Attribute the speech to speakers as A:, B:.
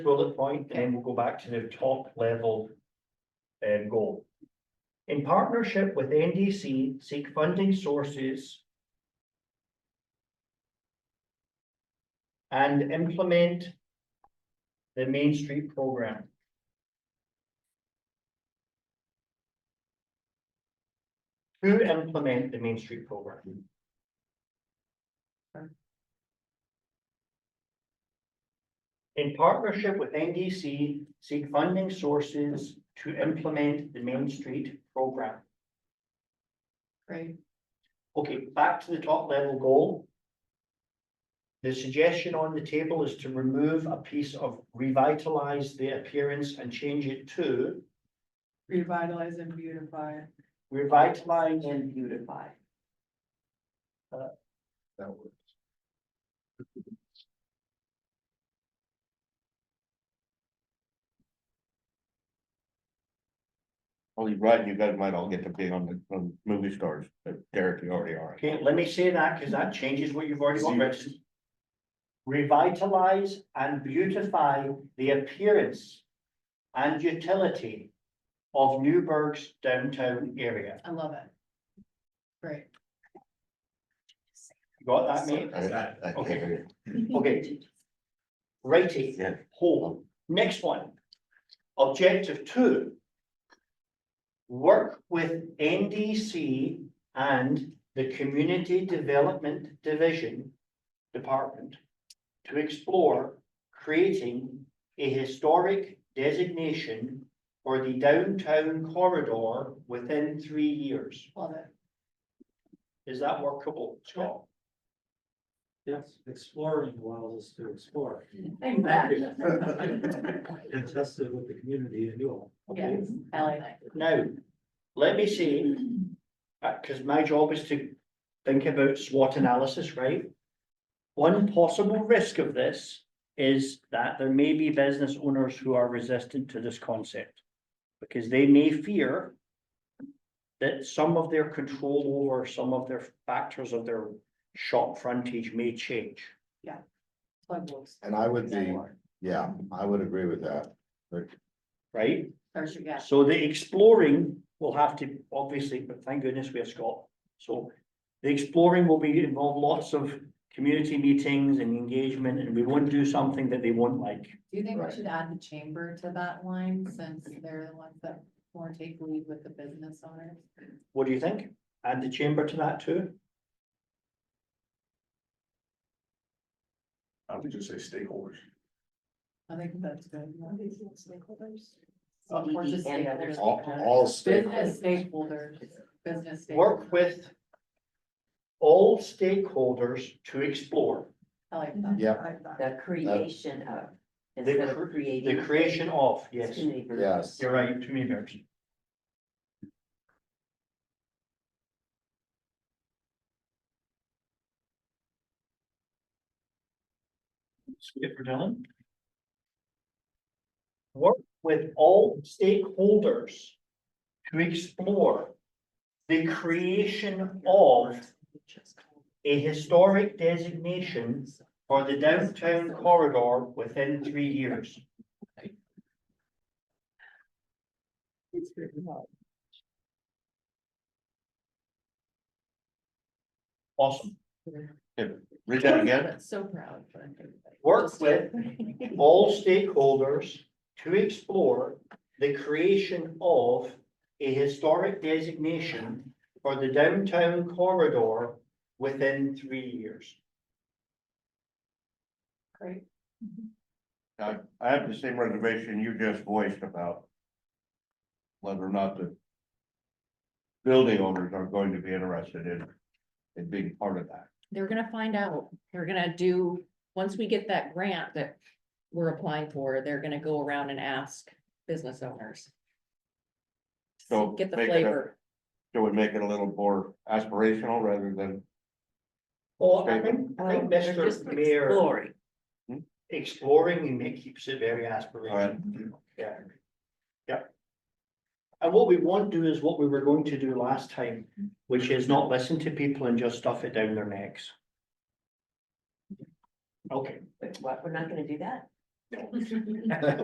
A: bullet point, and we'll go back to the top level um, goal. In partnership with NDC, seek funding sources and implement the Main Street program. To implement the Main Street program. In partnership with NDC, seek funding sources to implement the Main Street program.
B: Great,
A: Okay, back to the top level goal. The suggestion on the table is to remove a piece of revitalize the appearance and change it to
B: revitalize and beautify.
A: revitalize and beautify.
C: That works. Only right, you guys might all get to be on the, on movie stars, but Derek, you already are.
A: Okay, let me say that because that changes what you've already got written. Revitalize and beautify the appearance and utility of Newburgh's downtown area.
B: I love it. Great.
A: You Got that, mate?
C: I- I can't hear
A: Okay. Righty.
C: Yeah.
A: Whole. Next one. Objective two. Work with NDC and the Community Development Division Department to explore creating a historic designation for the downtown corridor within three years.
B: Love it.
A: Is that workable, Scott?
D: Yes, exploring allows us to explore.
B: Exactly.
D: And test it with the community and you all.
B: Yes, I like that.
A: Now, let me see. because Uh, my job is to think about SWOT analysis, right? One possible risk of this is that there may be business owners who are resistant to this concept. Because they may fear that some of their control over some of their factors of their shop frontage may change.
B: Plug works.
C: And I would be, yeah, I would agree with that.
A: Right?
B: There's your guess.
A: So the exploring will have to, obviously, but thank goodness we have Scott. So the exploring will be involve lots of community meetings and engagement, and we won't do something that they won't like.
B: Do you think we
C: Right.
B: should add the chamber to that line since they're the ones that more take lead with the business owners?
A: What do you think? Add the chamber to that too?
C: I would just say stakeholders.
B: I think that's good.
A: E
B: Stakeholders. Or just
A: And
B: stakeholders.
C: All, all
B: Business
C: stakeholders.
B: stakeholders, business.
A: Work
B: stakeholders.
A: with all stakeholders to explore
B: I like that.
C: Yeah.
E: The creation of, instead of
A: the
E: creating.
A: creation of, yes,
E: Too many verbs.
C: Yes.
A: you're right, too many verbs. Skip for Dylan. Work with all stakeholders to explore the creation of a historic designation for the downtown corridor within three years. Awesome.
C: Read that again.
B: But So proud. for everybody.
A: Work with all stakeholders to explore the creation of a historic designation for the downtown corridor within three years.
B: Great.
C: I, I have the same reservation you just voiced about. Whether or not the. Building owners are going to be interested in, in being part of that.
F: they're gonna find out, they're gonna do, once we get that grant that we're applying for, they're gonna go around and ask business owners.
C: So
F: Get the
C: make it a-
F: flavor,
C: So we make it a little more aspirational rather than,
A: Well, I think, I
E: Um,
A: think
F: they're just
A: Mr. Mayor
F: exploring,
A: exploring we make keeps it very
C: all right,
A: aspirational. Yeah. Yep. And what we won't do is what we were going to do last time, which is not listen to people and just stuff it down their necks. Okay,
E: But what, we're not gonna do that?